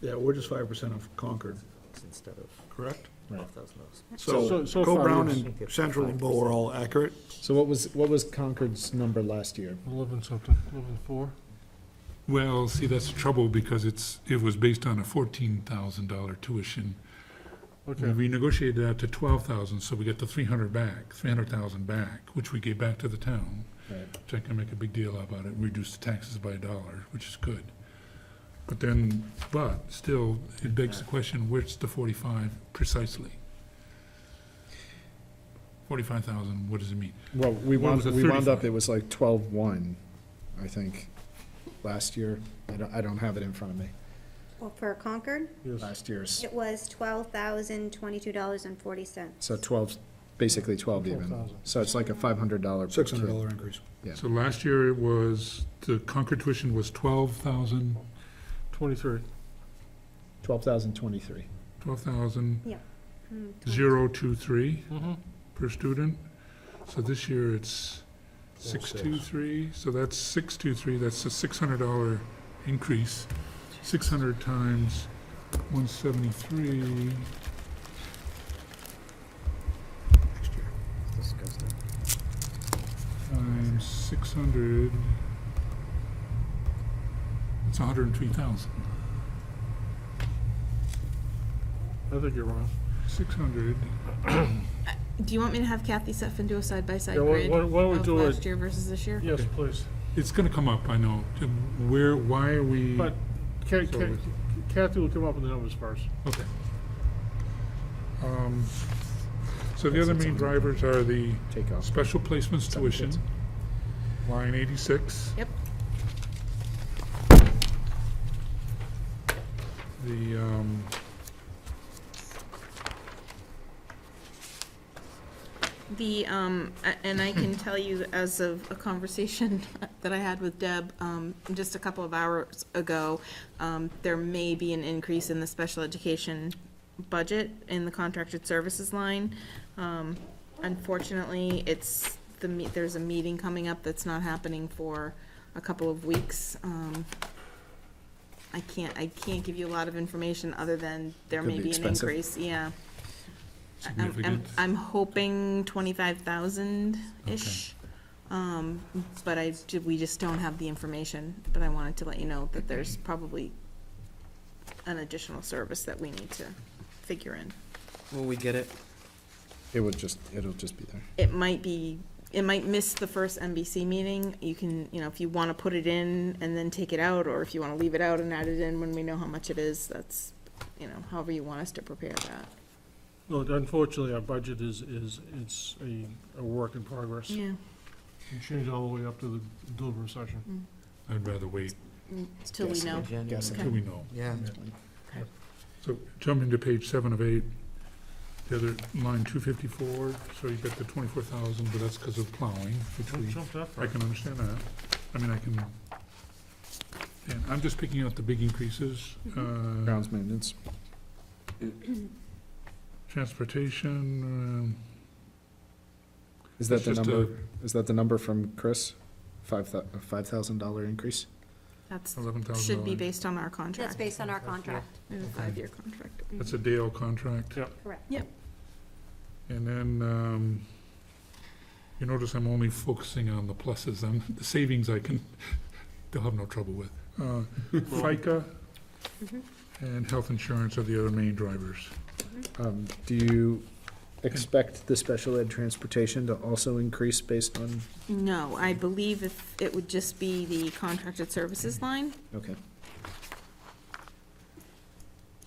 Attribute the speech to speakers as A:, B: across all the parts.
A: Yeah, we're just five percent of Concord,
B: instead of
A: correct?
B: off those notes.
A: So,
C: So- so
A: Co
C: far,
A: Brown
C: yes.
A: and Central and Bow are all accurate.
C: So what was, what was Concord's number last year?
D: Eleven something, eleven four?
E: Well, see, that's the trouble, because it's, it was based on a fourteen thousand dollar tuition. We
D: Okay,
E: renegotiated that to twelve thousand, so we get the three hundred back, three hundred thousand back, which we gave back to the town.
C: Right.
E: Which I can make a big deal about it, reduce the taxes by a dollar, which is good. But then, but still, it begs the question, where's the forty-five precisely? Forty-five thousand, what does it mean?
C: Well, we
E: One
C: wound,
E: was a
C: we wound up,
E: 35.
C: it was like twelve-one, I think, last year. I don't, I don't have it in front of me,
F: Well, for Concord,
D: yes.
C: last year's.
F: it was twelve thousand twenty-two dollars and forty cents.
C: So twelve, basically twelve even.
D: 12,000.
C: So it's like a five hundred dollar.
A: Six hundred dollar increase.
C: Yeah.
E: So last year it was, the Concord tuition was twelve thousand,
D: Twenty-three.
C: Twelve thousand twenty-three.
E: twelve thousand,
F: Hmm,
E: zero, two, three
D: Mm-hmm.
E: per student. So this year it's six,
A: six.
E: two, three, so that's six, two, three, that's a six hundred dollar increase. Six hundred times one seventy-three,
A: Next year.
B: Disgusting.
E: times six hundred, it's hundred and three thousand.
D: I think you're wrong.
E: Six hundred,
G: Do you want me to have Kathy Seffen do a side-by-side
D: Yeah, why,
G: grid
D: why why don't we
G: of
D: do
G: last
D: it?
G: year versus this year?
D: Yes, please.
E: it's gonna come up, I know, To where, why are we?
D: But Ca-
E: So
D: Ca-
E: we-
D: Kathy will come up with the numbers first.
E: Okay. Um, So the Oh. other main drivers are the
C: Take off.
E: special placements tuition, line eighty-six.
G: Yep.
E: The, um,
G: The, um, a- and I can tell you as of a conversation that I had with Deb, um, just a couple of hours ago, um, there may be an increase in the special education budget in the contracted services line. Um, unfortunately, it's, the, me- there's a meeting coming up that's not happening for a couple of weeks. Um, I can't, I can't give you a lot of information other than there
C: Could
G: may
C: be
G: be an
C: expensive.
G: increase, yeah. I- I'm- I'm,
E: significant,
G: I'm hoping twenty-five thousand-ish. Um, but I, ju- we just don't have the information, but I wanted to let you know that there's probably an additional service that we need to figure in.
B: Will we get it?
C: It would just, it'll just be there.
G: It might be, it might miss the first NBC meeting. You can, you know, if you wanna put it in and then take it out, or if you wanna leave it out and add it in when we know how much it is, that's, you know, however you want us to prepare that.
D: No, unfortunately, our budget is, is, it's a, a work in progress.
G: Yeah.
D: It changed all the way up to the delivery session.
E: I'd rather wait
G: Till we
C: Yes.
G: know.
C: Yes.
E: until we know.
B: Yeah.
E: So jumping to page seven of eight, the other line two fifty-four, so you get the twenty-four thousand, but that's because of plowing, which
D: Don't
E: we
D: jump that
E: I
D: far.
E: can understand that. I mean, I can, and I'm just picking out the big increases. Uh,
C: Grounds maintenance.
E: Transportation, um,
C: Is that
E: It's
C: the
E: just a-
C: number, is that the number from Chris? Five thou, a five thousand dollar increase?
G: That's,
E: um, eleven thousand
G: should be
E: dollars.
G: based on our
F: That's
G: contract.
F: based on our contract,
G: It's a five-year contract.
E: That's a Dale contract.
D: Yeah.
F: correct.
E: And then, um, you notice I'm only focusing on the pluses, um, the savings I can, they'll have no trouble with. Uh, FICA
F: Mhm.
G: Mm-hmm.
E: and health insurance are the other main drivers.
C: Um, do you expect the special ed transportation to also increase based on,
G: No, I believe if, it would just be the contracted services line.
C: okay.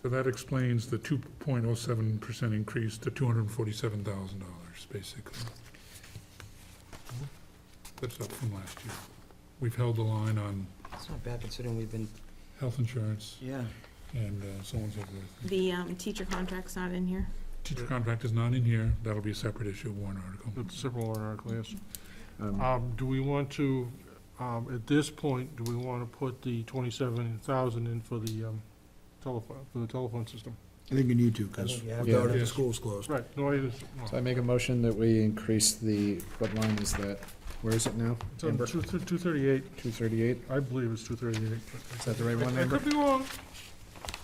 E: So that explains the two point oh seven percent increase to two hundred and forty-seven thousand dollars, basically. That's up from last year. We've held the line on
B: It's not bad considering we've been,
E: health insurance
B: yeah.
E: and uh, so on and so forth.
G: The um, teacher contract's not in here.
E: Teacher contract is not in here, that'll be a separate issue, warrant article.
D: That's several warrant articles, yes.
C: Um,
D: Um, do we want to, um, at this point, do we want to put the twenty-seven thousand in for the, um, telephone, for the telephone system?
A: I think you need to, because
B: think you have
A: without
E: to.
A: it, the
E: Yes.
A: school's closed.
D: Right, no, I just,
C: So I make a motion that we increase the, what line is that? Where is it now?
D: it's on two, two thirty-eight,
C: Two thirty-eight?
D: I believe it's two thirty-eight.
C: Is that the right one,
D: I
C: Amber?
D: could be wrong,